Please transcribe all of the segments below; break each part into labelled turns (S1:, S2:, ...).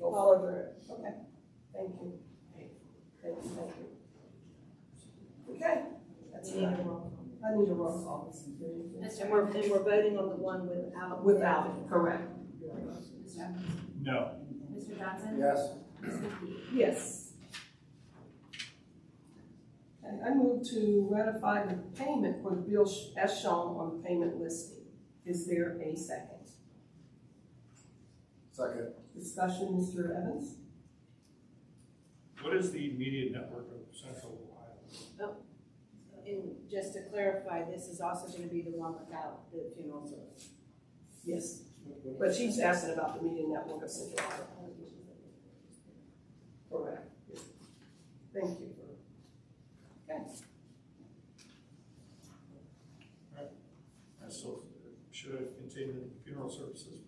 S1: all over it, okay, thank you. Thank you, thank you. Okay, that's
S2: We need
S1: right,
S2: a roll call.
S1: I need a roll call.
S2: And we're, and we're voting on the one without.
S1: Without, it, correct,
S2: Mr. Evans?
S3: No.
S2: Mr. Johnson?
S3: Yes.
S2: Ms. McKee?
S1: yes. Okay, I move to ratify the payment for the bill sh- as shown on the payment listing. Is there a second?
S4: Second.
S1: Discussion, Mr. Evans?
S3: What is the media network of Central Ohio?
S2: And just to clarify, this is also gonna be the one without the funeral service.
S1: Yes, but she's asking about the media network of Central Iowa. Correct. Thank you for, okay.
S3: I still should have continued funeral services.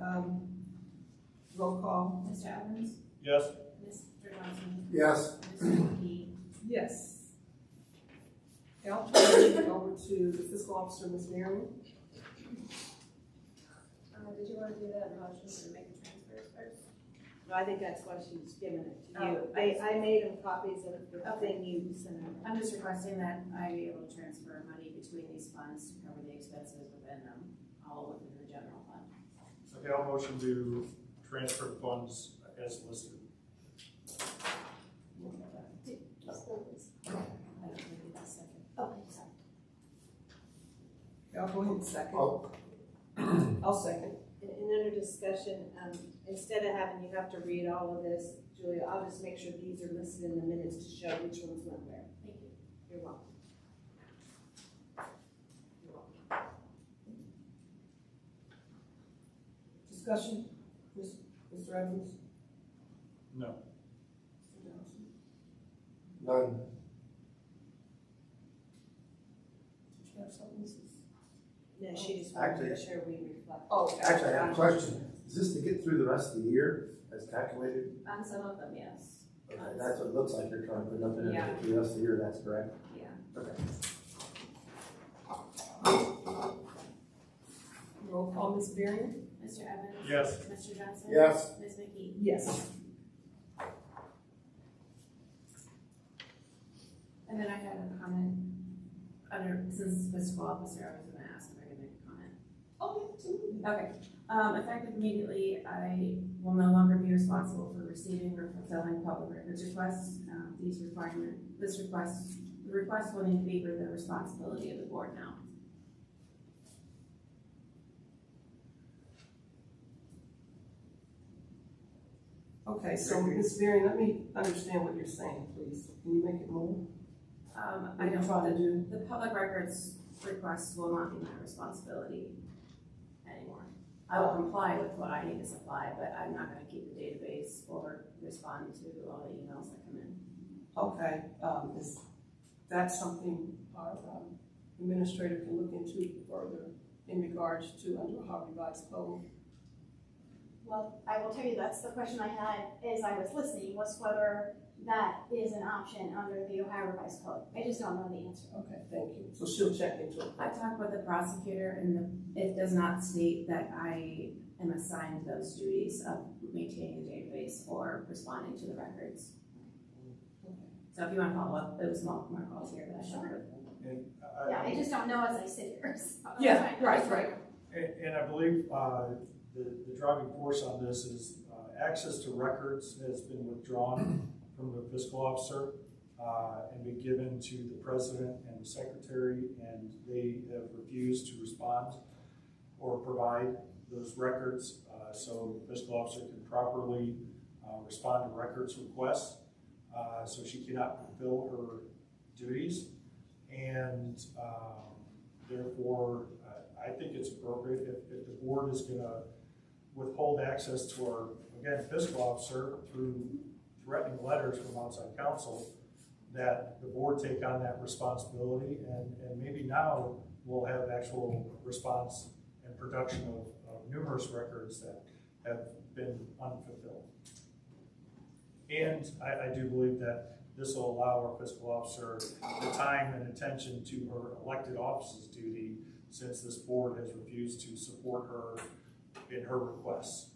S1: Um, Roll call.
S2: Mr. Evans?
S3: Yes?
S2: Mr. Johnson?
S4: Yes.
S2: Ms. McKee?
S1: Yes. Okay, I'll turn it over to the fiscal officer, Ms. Marion.
S5: Uh, did you want to do that motion to make the transfers first?
S2: No, I think that's why she's giving it to you.
S5: Oh, I
S2: They,
S5: see.
S2: I made them copies of the thing you sent out.
S5: I'm just requesting that I be able to transfer money between these funds to cover the expenses within them, all within the general fund.
S3: Okay, I'll motion to transfer funds as listed.
S5: I don't think it's a second.
S1: Okay, I'll go ahead and second.
S4: I'll-
S1: I'll second.
S2: And, and under discussion, um, instead of having you have to read all of this, Julia, I'll just make sure these are listed in the minutes to show which ones went where.
S5: Thank you.
S2: You're welcome. You're welcome.
S1: Discussion, Ms. Mr. Evans?
S3: No.
S1: Mr. Johnson?
S4: None.
S1: Did you have something, Mrs.?
S2: No, she just wanted to make sure we reflect.
S1: Oh,
S4: Actually, I have a question. Is this to get through the rest of the year as calculated?
S5: On some of them, yes,
S4: Okay, that's what it looks like you're trying to put nothing in to get through the rest of the year, that's correct?
S5: yeah.
S4: Okay.
S1: roll call, Ms. Marion?
S5: Mr. Evans?
S3: Yes.
S5: Mr. Johnson?
S4: Yes.
S5: Ms. McKee?
S1: Yes.
S5: And then I had a comment, under, since fiscal officer, I was gonna ask if I could make a comment.
S1: Oh, absolutely.
S5: Okay, um, effective immediately, I will no longer be responsible for receiving or fulfilling public records requests. Um, these requirement, this request, the request will need to be for the responsibility of the board now.
S1: Okay, so Ms. Marion, let me understand what you're saying, please. Can you make it more?
S5: Um, I don't,
S1: Try to
S5: the,
S1: do.
S5: the public records requests will not be my responsibility anymore. I will comply with what I need to supply, but I'm not gonna keep the database or respond to all the emails that come in.
S1: Okay, um, is that something our um, administrator can look into further in regards to under our revised code?
S6: Well, I will tell you, that's the question I had as I was listening, was whether that is an option under the Ohio Revised Code. I just don't know the answer.
S1: Okay, thank you. So she'll check into it.
S5: I talked with the prosecutor and the, it does not state that I am assigned those duties of maintaining the database or responding to the records. So if you want to follow up, it was multiple more calls here, but I should.
S3: And
S6: Yeah,
S3: I,
S6: I just don't know as I sit here, so.
S1: Yeah, right, right.
S3: and and I believe, uh, the, the driving force on this is, uh, access to records has been withdrawn from the fiscal officer, uh, and be given to the president and the secretary, and they have refused to respond or provide those records, uh, so the fiscal officer can properly, uh, respond to records requests. Uh, so she cannot fulfill her duties. And, um, therefore, uh, I think it's appropriate if, if the board is gonna withhold access to our, again, fiscal officer through threatening letters from outside counsel, that the board take on that responsibility, and, and maybe now we'll have actual response and production of, of numerous records that have been unfulfilled. And I, I do believe that this will allow our fiscal officer the time and attention to her elected offices duty since this board has refused to support her in her requests.